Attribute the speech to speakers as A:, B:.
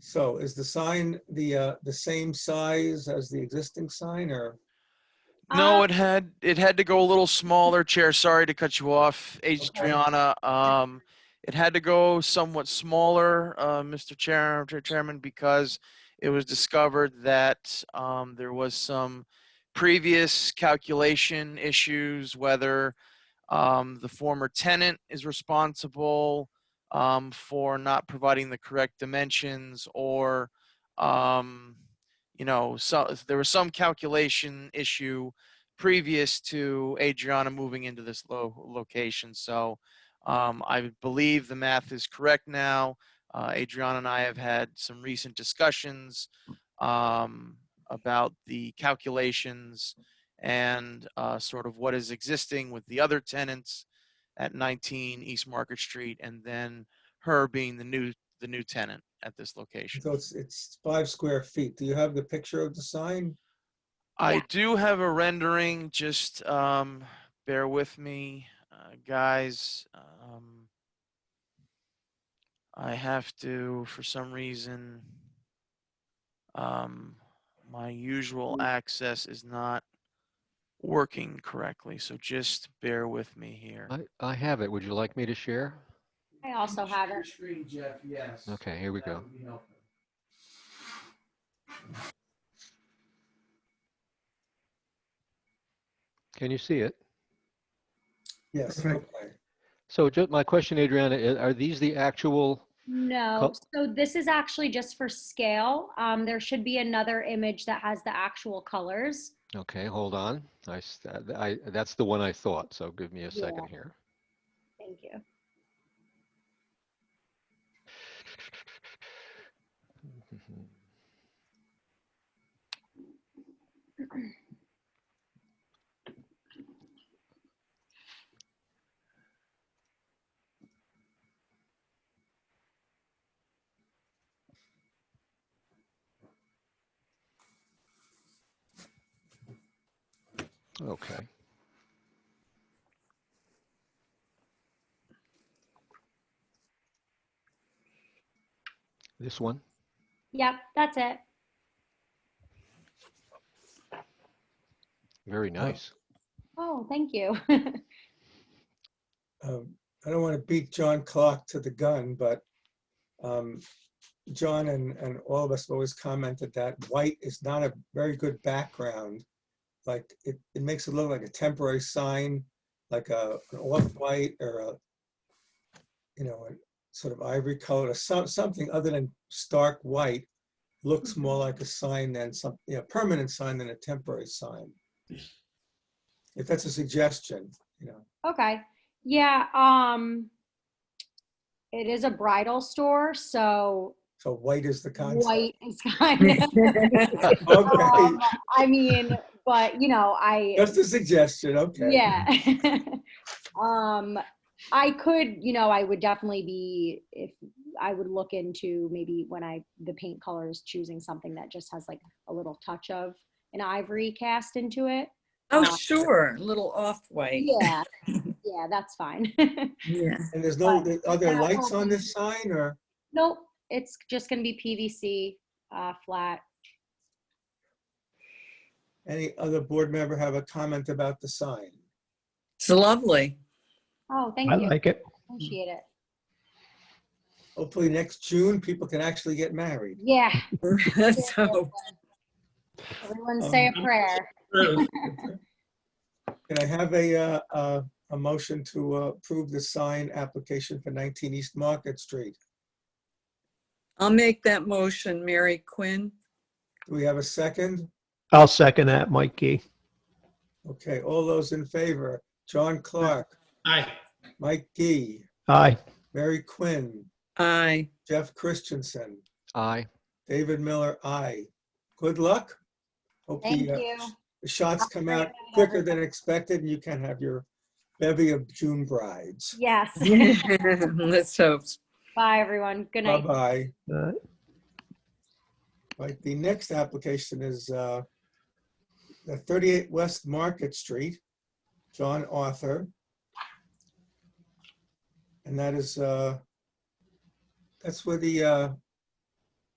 A: So is the sign the, uh, the same size as the existing sign or?
B: No,
C: Uh,
B: it had, it had to go a little smaller chair. Sorry to cut you off, Adriana. Um, it had to go somewhat smaller, uh, Mr. Chair, Chair- Chairman, because it was discovered that, um, there was some previous calculation issues, whether, um, the former tenant is responsible, um, for not providing the correct dimensions or, um, you know, so there was some calculation issue previous to Adriana moving into this lo- location. So um, I believe the math is correct now. Uh, Adriana and I have had some recent discussions um, about the calculations and uh, sort of what is existing with the other tenants at 19 East Market Street, and then her being the new the new tenant at this location.
A: So it's, it's five square feet. Do you have the picture of the sign?
B: I
C: Yeah.
B: do have a rendering. Just um, bear with me, uh, guys. Um, I have to, for some reason, um, my usual access is not working correctly. So just bear with me here.
D: I, I have it. Would you like me to share?
C: I also have it.
E: Screen, Jeff, yes.
D: Okay, here we
E: That
D: go.
E: would be helpful.
D: Can you see it?
A: Yes.
E: Perfect.
A: okay.
D: So ju- my question, Adriana, i- are these the actual,
C: No,
D: Col-
C: so this is actually just for scale. Um, there should be another image that has the actual colors.
D: okay, hold on. I, s- uh, I- that's the one I thought, so give me a second here.
C: Thank you.
D: Okay. This one?
C: Yep, that's it.
D: Very nice.
C: Oh, thank you.
A: Um, I don't want to beat John Clark to the gun, but um, John and, and all of us have always commented that white is not a very good background. Like, it, it makes it look like a temporary sign, like a, an off-white or a, you know, a sort of ivory color, or some, something other than stark white looks more like a sign than some, you know, permanent sign than a temporary sign. If that's a suggestion, you know.
C: Okay. Yeah, um, it is a bridal store, so
A: So white is the concept.
C: white is kind of,
A: Okay,
C: um, I mean, but you know, I.
A: just a suggestion, okay.
C: Yeah. um, I could, you know, I would definitely be if I would look into maybe when I the paint colors choosing something that just has like a little touch of an ivory cast into it.
F: Oh,
C: Uh,
F: sure, little off-white.
C: Yeah, yeah, that's fine.
F: Yeah.
A: And there's no,
C: But
A: are there
C: that
A: lights
C: won't
A: on
C: be-
A: this sign or,
C: nope, it's just gonna be PVC uh, flat.
A: any other board member have a comment about the sign?
F: It's lovely.
C: Oh, thank
G: I
C: you.
G: like it.
C: Appreciate it.
A: Hopefully next June, people can actually get married.
C: Yeah,
F: So,
C: everyone say
G: Um,
C: a prayer.
A: Can I have a, uh, uh, a motion to uh, approve the sign application for 19 East Market Street?
F: I'll make that motion, Mary Quinn.
A: Do we have a second?
G: I'll second that, Mikey.
A: Okay, all those in favor, John Clark,
E: Aye.
A: Mike Gee,
G: Aye.
A: Mary Quinn,
F: Aye.
A: Jeff Christensen,
D: Aye.
A: David Miller, aye. Good luck. Hope the,
C: Thank
A: uh,
C: you.
A: the shots
C: Have a
A: come
C: great
A: out
C: night,
A: quicker than expected, and you can have your bevy of June brides.
C: Yes.
F: Let's hope.
C: Bye, everyone. Good night.
A: Bye-bye.
G: Uh,
A: Right, the next application is uh, the 38 West Market Street, John Arthur. And that is, uh, that's where the, uh,